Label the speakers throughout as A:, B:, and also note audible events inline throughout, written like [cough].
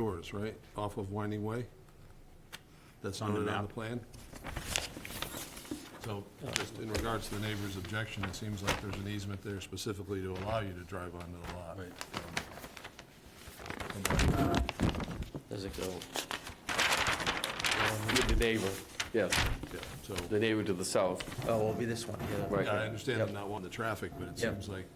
A: Brewers, right, off of Winding Way? That's
B: On the
A: noted on the
B: map.
A: plan? So, just in regards to the neighbor's objection, it seems like there's an easement there specifically to allow you to drive onto the lot. uh,
B: Does it go? With the neighbor, yes,
A: Yeah, So,
B: the neighbor to the south,
C: Oh, it'll be this one, yeah.
A: yeah, I
B: right.
A: understand I'm not wanting the traffic, but it
C: Yep.
A: seems like,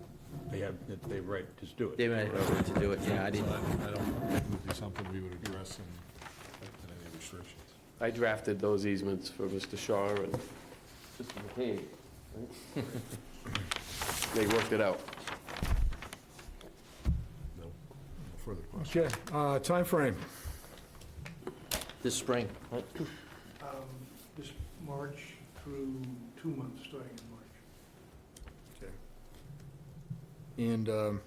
D: They have, they right, just do
C: David and I didn't know what to do it, yeah, I
A: I
C: didn't,
A: I don't think it would be something we would address in in any restrictions.
B: I drafted those easements for Mr. Shaw and Mr. McCabe. right? [laughs] They worked it out.
A: No no further questions.
E: Okay, uh, timeframe,
C: this spring.
F: um, this March through two months, starting in March.
E: and um,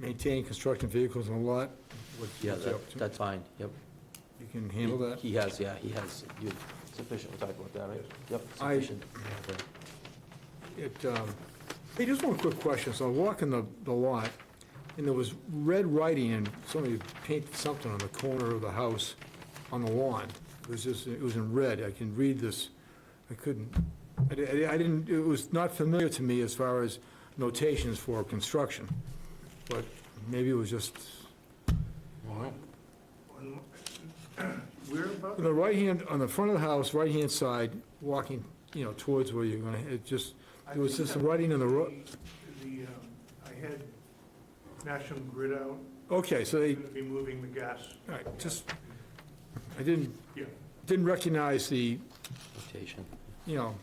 E: maintain construction vehicles on the lot, What-
C: Yeah,
E: what's up
C: that-
E: to?
C: that's fine, yep.
E: you can handle that?
C: He has, yeah, he has, you, sufficient, we'll talk about that, right? Yep,
E: I-
C: sufficient. Okay.
E: It, um, hey, just one quick question, so I'm walking the, the lot, and there was red writing, and somebody painted something on the corner of the house on the lawn. It was just, it was in red, I can read this, I couldn't, I di- I didn't, it was not familiar to me as far as notations for construction, but maybe it was just,
F: On- [clears throat] Where
E: on
F: about,
E: the right hand, on the front of the house, right-hand side, walking, you know, towards where you're gonna, it just,
F: I
E: it was
F: think
E: just
F: that
E: writing on the road.
F: the, um, I had National Grid out,
E: Okay, so
F: they're
E: they,
F: gonna be moving the gas,
E: all right, just, I didn't,
F: yeah.
E: didn't recognize the,
C: Rotation.
E: you know,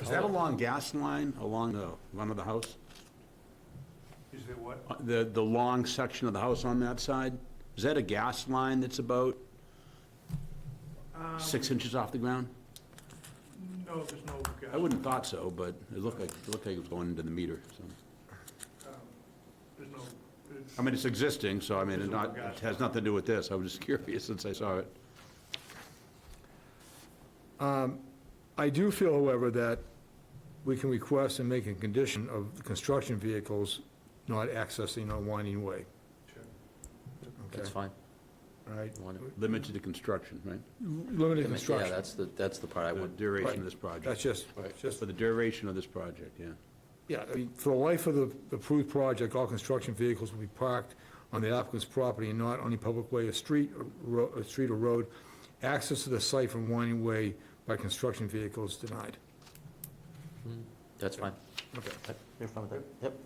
D: Is that a long gas line along the front of the house?
F: Is there what?
D: Uh, The, the long section of the house on that side? Is that a gas line that's about six inches off the ground?
F: No, there's no gas.
D: I wouldn't thought so, but it looked like, it looked like it was going into the meter, so.
F: There's no,
D: I mean, it's existing, so I mean, it not, it has nothing to do with this. I was just [laughs] curious since I saw it.
E: I do feel, however, that we can request and make a condition of the construction vehicles not accessing a winding way,
F: it's,
C: That's
E: okay?
C: fine.
E: All right,
C: One-
D: Limited to construction, right?
E: limited
C: Yeah,
E: construction,
C: that's the, that's the part I
D: The
C: would,
D: duration of this project.
E: that's just, just,
D: For the duration of this project, yeah.
E: yeah, I mean, for the life of the approved project, all construction vehicles will be parked on the applicant's property and not on any public way or street, or ro- or street or road. Access to the site from winding way by construction vehicles denied.
C: that's fine.
E: Okay.
C: Yep, You're fine with that? Yep.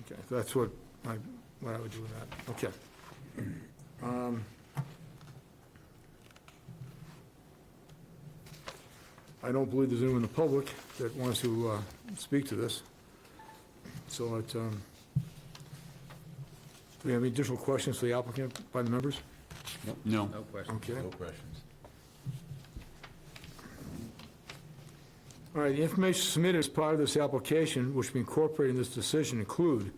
E: Okay, that's what I, what I would do with that, okay. Um, I don't believe there's anyone in the public that wants to uh, speak to this. So it, um, do we have any additional questions for the applicant by the members?
D: No.
E: Okay.
A: No questions.
E: All right, the information submitted as part of this application, which we incorporate in this decision, include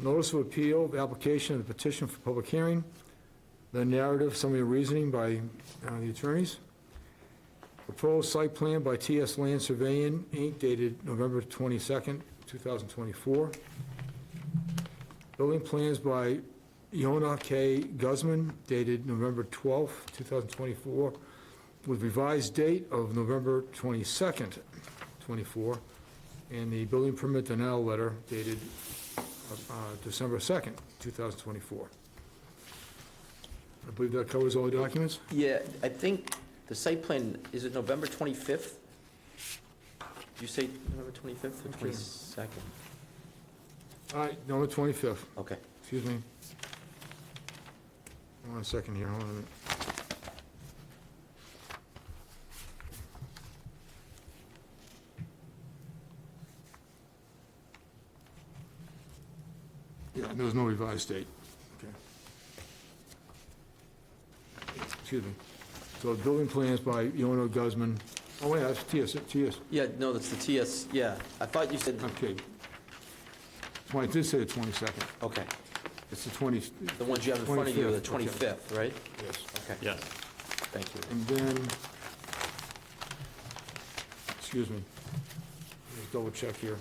E: notice of appeal, the application of the petition for public hearing, the narrative, summary of reasoning by uh, the attorneys, proposed site plan by TS Land Surveying, Inc., dated November 22nd, 2024, building plans by Yona K. Guzman, dated November 12th, 2024, with revised date of November 22nd, 24, and the building permit denial letter dated uh, December 2nd, 2024. I believe that covers all the documents?
C: Yeah, I think the site plan, is it November 25th? Did you say November 25th or 22nd?
E: All right, November 25th,
C: Okay.
E: excuse me. One second here, hold on a minute. Yeah, there was no revised date. Okay. Excuse me. So building plans by Yono Guzman. Oh, wait, that's TS, TS,
C: Yeah, no, that's the TS, yeah. I thought you said,
E: okay. Twenty, it did say the 22nd.
C: okay.
E: It's the 20,
C: The ones you have in front of you are the
E: 25th, okay.
C: 25th, right?
E: yes.
C: Okay.
B: Yes.
C: Thank you.
E: And then, excuse me, just double check here.